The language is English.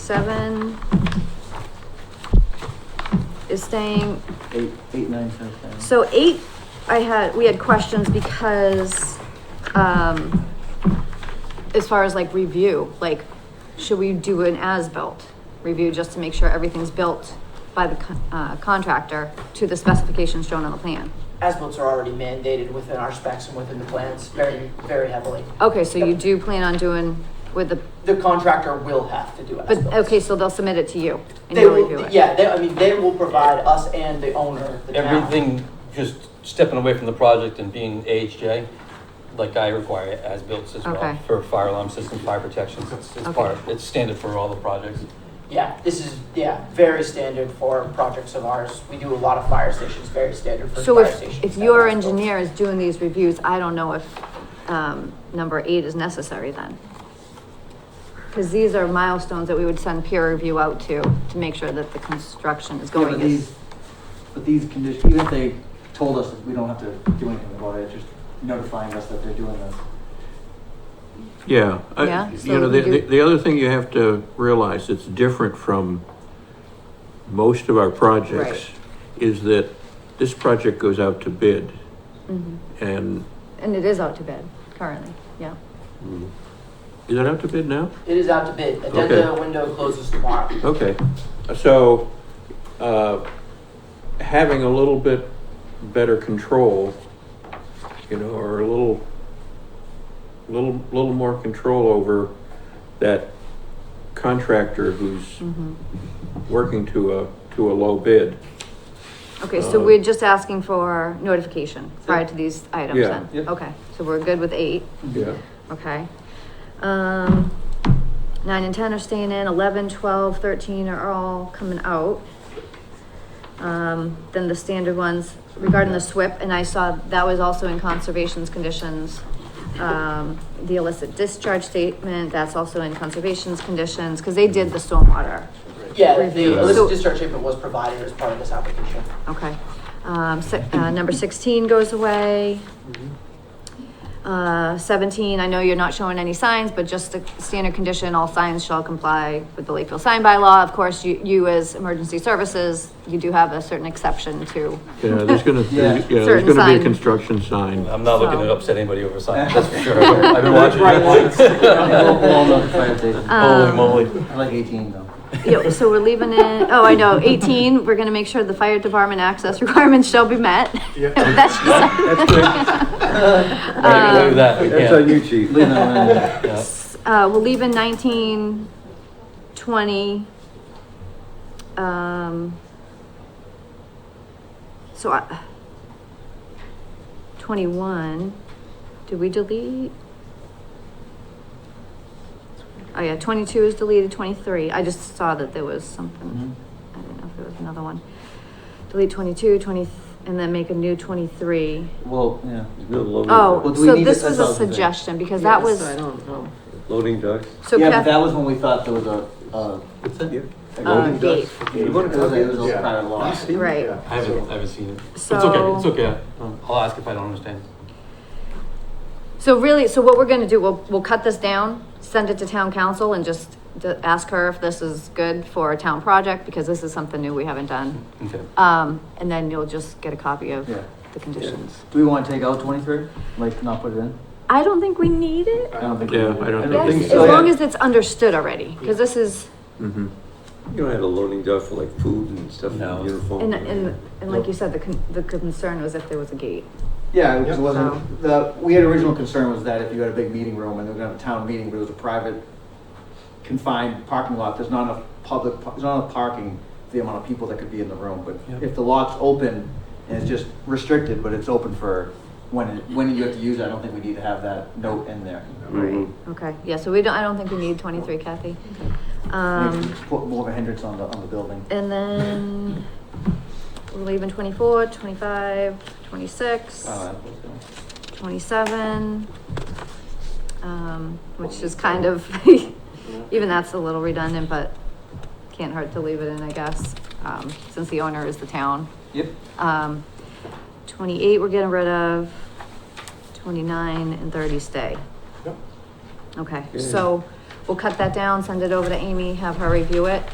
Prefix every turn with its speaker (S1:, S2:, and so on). S1: seven is staying.
S2: Eight, eight, nine, ten, ten.
S1: So eight, I had, we had questions because, um, as far as like review, like, should we do an as-built review just to make sure everything's built by the con- uh, contractor to the specifications shown on the plan?
S3: As-bills are already mandated within our specs and within the plans very, very heavily.
S1: Okay, so you do plan on doing with the,
S3: The contractor will have to do as
S1: but, okay, so they'll submit it to you and
S3: They
S1: you'll review
S3: will,
S1: it?
S3: yeah, they, I mean, they will provide us and the owner, the town.
S4: Everything, just stepping away from the project and being AHJ, like I require as-built as
S1: Okay.
S4: well, for fire alarm systems, fire protection, it's, it's
S1: Okay.
S4: part, it's standard for all the projects.
S3: Yeah, this is, yeah, very standard for projects of ours. We do a lot of fire stations, very standard for
S1: So
S3: fire
S1: if,
S3: stations.
S1: if
S3: that
S1: your
S3: as-bills.
S1: engineer is doing these reviews, I don't know if, um, number eight is necessary then. Cause these are milestones that we would send peer review out to, to make sure that the construction is
S2: Yeah, but
S1: going
S2: these,
S1: as.
S2: but these conditions, even if they told us that we don't have to do anything about it, just notifying us that they're doing this.
S5: Yeah. I-
S1: Yeah, so
S5: You know,
S1: we
S5: the,
S1: do-
S5: the the other thing you have to realize that's different from most of our projects is that this project goes out to bid
S1: Mhm.
S5: and,
S1: And it is out to bid currently, yeah.
S5: is it out to bid now?
S3: It is out to bid. Addenda window closes tomorrow.
S5: Okay, so, uh, having a little bit better control, you know, or a little, little, little more control over that contractor who's
S1: Mhm.
S5: working to a, to a low bid.
S1: Okay, so
S2: Um,
S5: Uh,
S1: we're just asking for notification prior to these items
S5: Yeah.
S1: then?
S4: Yep.
S1: Okay, so we're good with eight,
S5: Yeah.
S1: okay. Um, nine and ten are staying in, eleven, twelve, thirteen are all coming out. Um, then the standard ones regarding the SWIP, and I saw that was also in conservation's conditions. Um, the illicit discharge statement, that's also in conservation's conditions, because they did the stormwater,
S3: Yeah, the
S1: So-
S3: illicit discharge treatment was provided as part of this application.
S1: okay. Um, si- uh, number sixteen goes away. Uh, seventeen, I know you're not showing any signs, but just the standard condition, all signs shall comply with the Lakeville sign by law. Of course, you, you as emergency services, you do have a certain exception to,
S5: Yeah, there's gonna,
S2: Yeah.
S5: yeah, there's
S1: Certain
S5: gonna be
S1: sign.
S5: a construction sign.
S4: I'm not looking
S1: So-
S4: to upset anybody over signs, that's for sure. I've been watching
S2: Bright
S4: it.
S2: lights. Well, well, no, fire station.
S1: Um,
S4: Holy moly.
S2: I like eighteen though.
S1: Yeah, so we're leaving it, oh, I know, eighteen, we're gonna make sure the fire department access requirements shall be met. That's just-
S4: Right away with that, we can't.
S5: you, chief.
S2: Leave that one in there.
S4: Yeah.
S1: Uh, we'll leave in nineteen, twenty. Um. So I. Twenty-one, did we delete? Oh yeah, twenty-two is deleted, twenty-three, I just saw that there was something,
S2: Mm-hmm.
S1: I didn't know if there was another one. Delete 22, 20, and then make a new twenty-three.
S2: Well, yeah.
S1: Oh,
S2: Well, do we
S1: so
S2: need
S1: this
S2: to
S1: was
S2: set
S1: a
S2: out the thing?
S1: suggestion, because that was,
S6: I don't know.
S5: Loading docks.
S1: so
S2: Yeah, but
S1: Kath,
S2: that was when we thought there was a, uh. a
S1: uh,
S2: golden-
S1: gate,
S2: It was a, it was a prior law.
S1: right.
S4: I haven't, I haven't seen it. It's okay,
S1: So-
S4: it's okay. I'll ask if I don't understand.
S1: So really, so what we're gonna do, we'll, we'll cut this down, send it to town council and just d- ask her if this is good for a town project, because this is something new we haven't done.
S4: Okay.
S1: Um, and then you'll just get a copy of
S2: Yeah.
S1: the conditions.
S2: Do we want to take out twenty-three? Like, not put it in?
S1: I don't think we need it.
S2: I don't think. we
S5: Yeah,
S2: do.
S5: I don't
S1: Yes,
S5: think
S1: as
S5: so.
S1: long as it's understood already, because this is,
S5: Mm-hmm.
S7: You don't have a loading dock for like food and stuff
S4: No.
S7: and uniform.
S1: and, and, and like you said, the con- the concern was if there was a gate.
S2: Yeah, because it
S1: So-
S2: wasn't, the, we had original concern was that if you had a big meeting room and they were gonna have a town meeting, but it was a private confined parking lot, there's not enough public, pa- there's not enough parking for the amount of people that could be in the room, but
S4: Yep.
S2: if the lot's open and it's just restricted, but it's open for when, it- when you have to use it, I don't think we need to have that note in there.
S1: Right, okay, yeah, so we don't, I don't think we need twenty-three, Kathy. Um.
S2: Just Put more of a hindrance on the, on the building.
S1: And then we're leaving 24, 25, 26,
S2: Uh,
S1: 27, um, which is kind of, even that's a little redundant, but can't hurt to leave it in, I guess, um, since the owner is the town.
S2: Yep.
S1: Um, 28, we're getting rid of, 29 and 30 stay. Okay, so we'll cut that down, send it over to Amy, have her review it.